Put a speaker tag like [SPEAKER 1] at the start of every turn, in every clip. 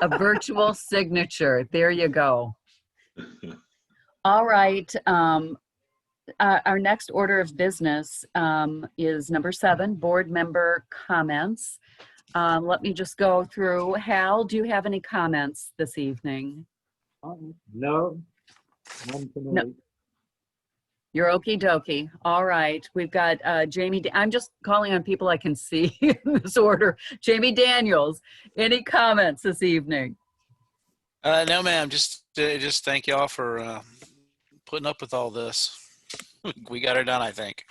[SPEAKER 1] A virtual signature. There you go. All right. Um, uh, our next order of business um, is number seven, board member comments. Um, let me just go through. Hal, do you have any comments this evening?
[SPEAKER 2] No. none for
[SPEAKER 1] No.
[SPEAKER 2] me.
[SPEAKER 1] You're okey dokey. All right. We've got uh, Jamie. Da- I'm just calling on people I can see in this order. Jamie Daniels, any comments this evening?
[SPEAKER 3] Uh, no, ma'am. Just, uh, just thank y'all for uh, putting up with all this. we got her done, I think.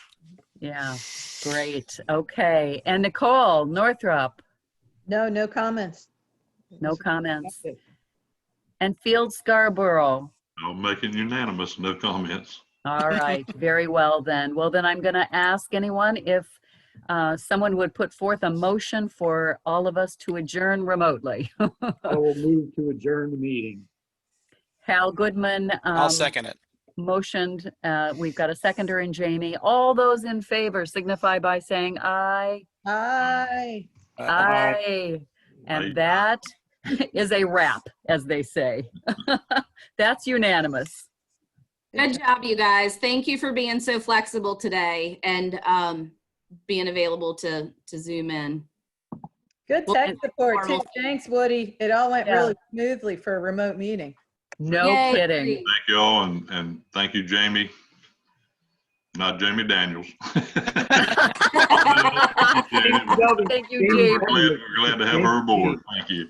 [SPEAKER 1] Yeah, great. Okay. And Nicole Northrup,
[SPEAKER 4] No, no comments.
[SPEAKER 1] no comments. And Field Scarborough.
[SPEAKER 5] I'll make it unanimous, no comments.
[SPEAKER 1] All right, very well then. Well, then I'm going to ask anyone if uh, someone would put forth a motion for all of us to adjourn remotely.
[SPEAKER 2] I will move to adjourn the meeting.
[SPEAKER 1] Hal Goodman.
[SPEAKER 3] I'll
[SPEAKER 1] um,
[SPEAKER 3] second it.
[SPEAKER 1] Motioned, uh, we've got a seconder in Jamie. All those in favor signify by saying aye.
[SPEAKER 4] Hi.
[SPEAKER 3] Uh,
[SPEAKER 1] Aye.
[SPEAKER 5] Aye.
[SPEAKER 1] And that is a wrap, as they say. That's unanimous.
[SPEAKER 6] Good job, you guys. Thank you for being so flexible today and um, being available to, to Zoom in.
[SPEAKER 4] Good tech support too.
[SPEAKER 6] Normal.
[SPEAKER 4] Thanks, Woody. It all went
[SPEAKER 1] Yeah.
[SPEAKER 4] really smoothly for a remote meeting.
[SPEAKER 1] No
[SPEAKER 6] Yay.
[SPEAKER 1] kidding.
[SPEAKER 5] Thank you all, and, and thank you, Jamie. Not Jamie Daniels. We're
[SPEAKER 1] Thank you, Jamie.
[SPEAKER 5] glad we're glad to have her aboard. Thank you.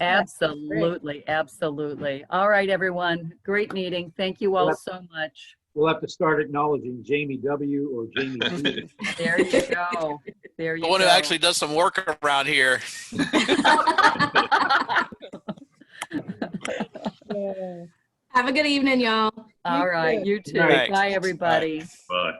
[SPEAKER 1] Absolutely, absolutely. All right, everyone. Great meeting. Thank you all
[SPEAKER 2] Yep.
[SPEAKER 1] so much.
[SPEAKER 2] We'll have to start acknowledging Jamie W. or Jamie D.
[SPEAKER 1] There you go. There you
[SPEAKER 3] the
[SPEAKER 1] go.
[SPEAKER 3] one who actually does some work around here.
[SPEAKER 4] Yeah.
[SPEAKER 6] Have a good evening, y'all.
[SPEAKER 1] All right, you too.
[SPEAKER 3] Right.
[SPEAKER 1] Bye, everybody.
[SPEAKER 5] Bye.